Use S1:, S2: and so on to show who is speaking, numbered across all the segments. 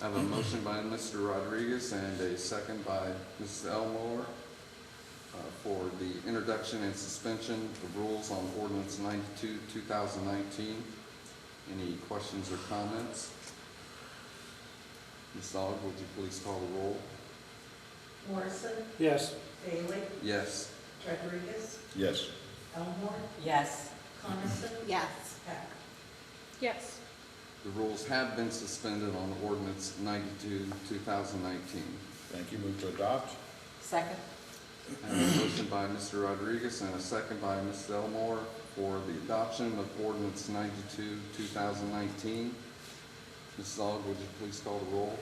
S1: I have a motion by Mr. Rodriguez and a second by Mrs. Elmore uh, for the introduction and suspension of rules on ordinance ninety-two, two thousand nineteen. Any questions or comments? Ms. Aug, would you please call the roll?
S2: Morrison,
S3: Yes.
S2: Bailey,
S1: Yes.
S2: Rodriguez,
S4: Yes.
S2: Elmore,
S5: Yes.
S2: Coniston,
S5: Yes.
S2: Heck.
S6: yes,
S1: The rules have been suspended on ordinance ninety-two, two thousand nineteen.
S4: Thank you. Move to adopt?
S5: Second?
S1: I have a motion by Mr. Rodriguez and a second by Mrs. Elmore for the adoption of ordinance ninety-two, two thousand nineteen. Mrs. Aug, would you please call the roll?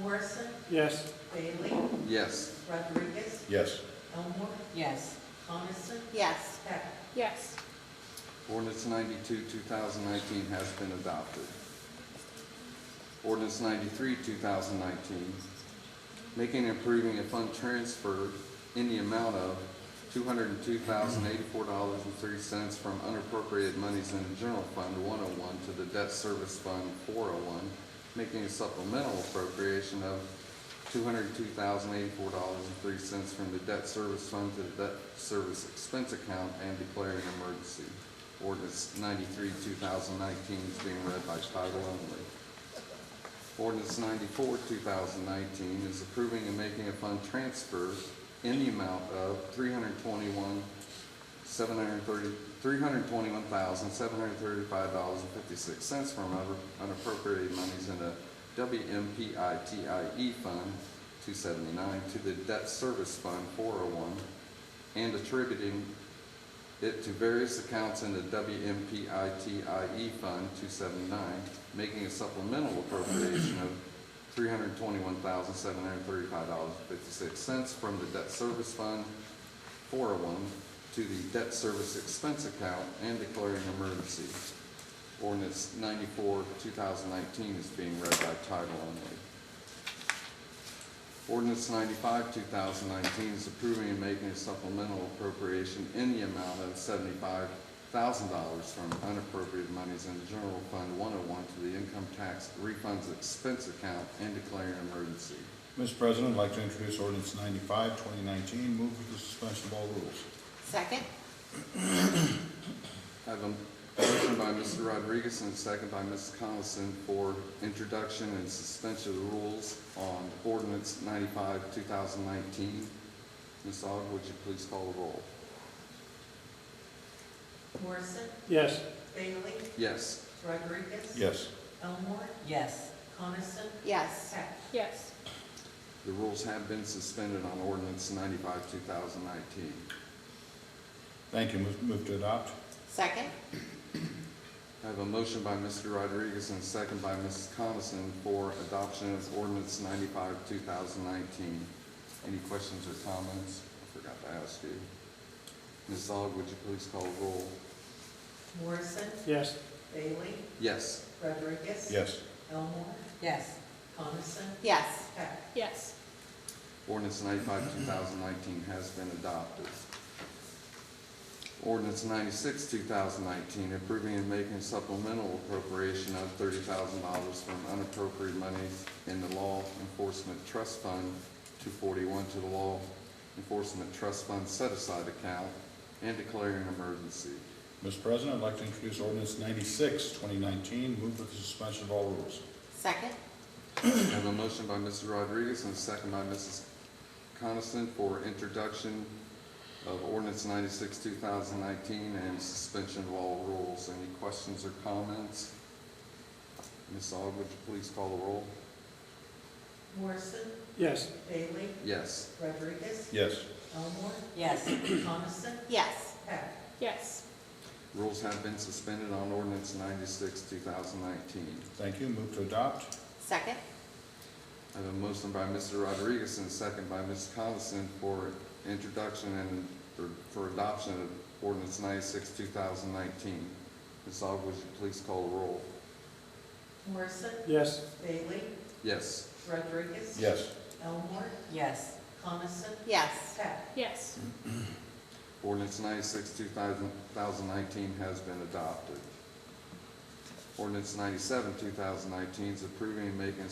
S2: Morrison,
S3: Yes.
S2: Bailey,
S1: Yes.
S2: Rodriguez,
S4: Yes.
S2: Elmore,
S5: Yes.
S2: Coniston,
S5: Yes.
S2: Heck.
S6: yes,
S1: Ordinance ninety-two, two thousand nineteen has been adopted. Ordinance ninety-three, two thousand nineteen, making and approving a fund transfer in the amount of two hundred and two thousand eighty-four dollars and three cents from unappropriated monies in the general fund one oh one to the debt service fund four oh one, making a supplemental appropriation of two hundred two thousand eighty-four dollars and three cents from the debt service fund to the debt service expense account and declaring an emergency. Ordinance ninety-three, two thousand nineteen is being read by title only. Ordinance ninety-four, two thousand nineteen is approving and making a fund transfer in the amount of three hundred twenty-one, seven hundred thirty, three hundred twenty-one thousand, seven hundred thirty-five dollars and fifty-six cents from other unappropriated monies in the WMPITIE E Fund two seventy-nine to the Debt Service Fund four oh one and attributing it to various accounts in the WMPITIE E Fund 279, making a supplemental appropriation of $321,735.56 from the debt service fund 401 to the debt service expense account and declaring an emergency. Ordinance 94, 2019 is being read by title only. Ordinance ninety-five, two thousand nineteen is approving and making a supplemental appropriation in the amount of seventy-five thousand dollars from unappropriated monies in the general fund one oh one to the income tax refunds expense account and declaring an emergency.
S4: Mr. President, I'd like to introduce ordinance 95, 2019. Move for the suspension of all rules.
S5: Second?
S1: I have a motion by Mr. Rodriguez and a second by Ms. Coniston for introduction and suspension of the rules on ordinance ninety-five, two thousand nineteen. Ms. Aug, would you please call the roll?
S2: Morrison,
S3: Yes.
S2: Bailey,
S1: Yes.
S2: Rodriguez.
S4: Yes.
S2: Elmore,
S5: Yes.
S2: Coniston,
S5: Yes.
S2: Heck.
S6: yes,
S1: The rules have been suspended on ordinance ninety-five, two thousand nineteen.
S4: Thank you. Move- Move to adopt?
S5: Second?
S1: I have a motion by Mr. Rodriguez and a second by Mrs. Coniston for adoption of ordinance ninety-five, two thousand nineteen. Any questions or comments? I forgot to ask you. Ms. Aug, would you please call the roll?
S2: Morrison,
S3: Yes.
S2: Bailey,
S1: Yes.
S2: Rodriguez.
S4: Yes.
S2: Elmore,
S5: Yes.
S2: Coniston,
S5: Yes.
S2: Heck.
S6: yes,
S1: Ordinance ninety-five, two thousand nineteen has been adopted. Ordinance ninety-six, two thousand nineteen, approving and making supplemental appropriation of thirty thousand dollars from unappropriated monies in the Law Enforcement Trust Fund two forty-one to the Law Enforcement Trust Fund set-aside account and declaring an emergency.
S4: Mr. President, I'd like to introduce ordinance 96, 2019. Move for the suspension of all rules.
S5: Second?
S1: I have a motion by Mr. Rodriguez and a second by Mrs. Coniston for introduction of ordinance ninety-six, two thousand nineteen, and suspension of all rules. Any questions or comments? Ms. Aug, would you please call the roll?
S2: Morrison,
S3: Yes.
S2: Bailey,
S1: Yes.
S2: Rodriguez,
S4: Yes.
S2: Elmore,
S5: Yes.
S2: Coniston,
S5: Yes.
S2: Heck.
S6: yes,
S1: Rules have been suspended on ordinance ninety-six, two thousand nineteen.
S4: Thank you. Move to adopt?
S5: Second?
S1: I have a motion by Mr. Rodriguez and a second by Ms. Coniston for introduction and for- for adoption of ordinance ninety-six, two thousand nineteen. Ms. Aug, would you please call the roll?
S2: Morrison,
S3: Yes.
S2: Bailey,
S1: Yes.
S2: Rodriguez.
S4: Yes.
S2: Elmore,
S5: Yes.
S2: Coniston,
S5: Yes.
S2: Heck.
S6: yes,
S1: Ordinance ninety-six, two thousand nineteen has been adopted. Ordinance ninety-seven, two thousand nineteen is approving and making a